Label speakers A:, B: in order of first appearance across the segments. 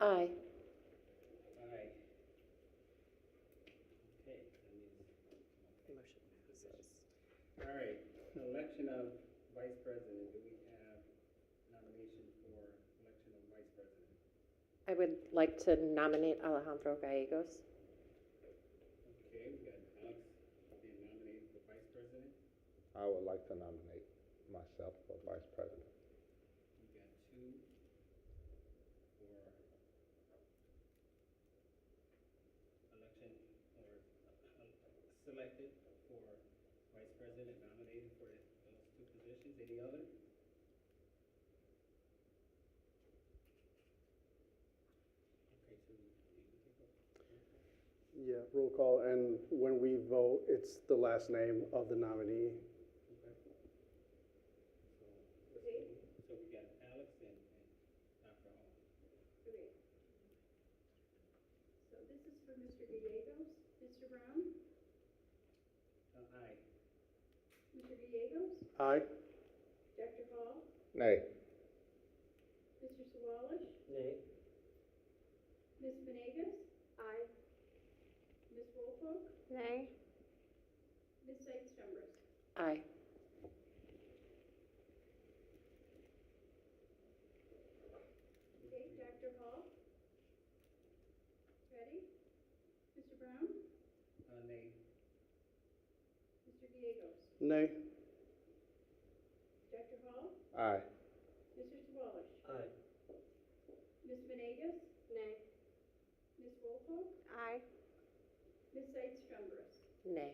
A: Aye.
B: Aye. Okay, that means,
C: Motion passes.
B: all right, election of vice president, do we have nomination for election of vice president?
A: I would like to nominate Alejandro Gallegos.
B: Okay, we got Alex being nominated for vice president,
D: I would like to nominate myself for vice president.
B: we got two for election or uh, selected for vice president, nominated for those two positions, any other? Okay, so you can go.
E: Yeah, roll call, and when we vote, it's the last name of the nominee.
B: Okay. So, so we got Alex and, and Dr. Hall.
F: Okay. So this is for Mr. Gallegos. Mr. Brown?
B: Uh, aye.
F: Mr. Gallegos?
E: Aye?
F: Dr. Hall?
D: Nay.
F: Mr. Sawalish?
C: Nay.
F: Ms. Venegas? Aye. Ms. Wolfolk?
A: Nay.
F: Ms. Sights Chambers?
A: Aye.
F: Okay, Dr. Hall? Ready? Mr. Brown?
B: Uh, nay.
F: Mr. Gallegos?
E: Nay?
F: Dr. Hall?
D: Aye.
F: Mr. Sawalish?
C: Aye.
F: Ms. Venegas?
A: Nay.
F: Ms. Wolfolk?
A: Aye.
F: Ms. Sights Chambers?
A: Nay.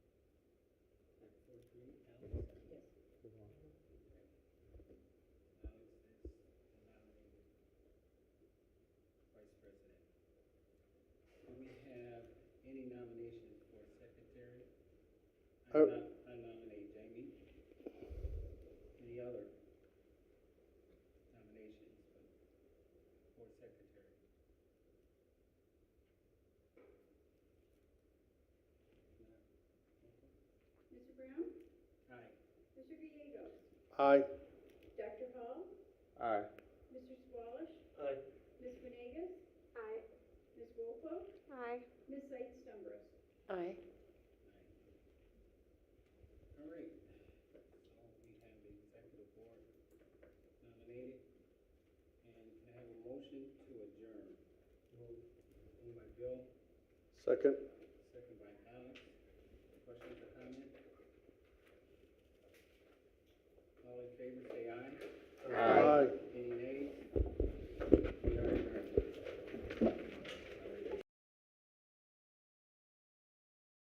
B: Four, three, Alex? Yes. Alex is nominated vice president. Do we have any nominations for secretary? I
E: Oh.
B: nom- I nominate Jamie. Any other nominations for, for secretary?
F: Mr. Brown? Mr. Gallegos?
B: Aye.
E: Aye?
F: Dr. Hall?
D: Aye.
F: Mr. Squalish?
C: Aye.
F: Ms. Venegas? Aye. Ms. Wolfo?
A: Aye.
F: Ms. Sights Chambers?
A: Aye.
B: All right, so we have the executive board nominated, and can I have a motion to adjourn. Moved by Bill,
E: Second?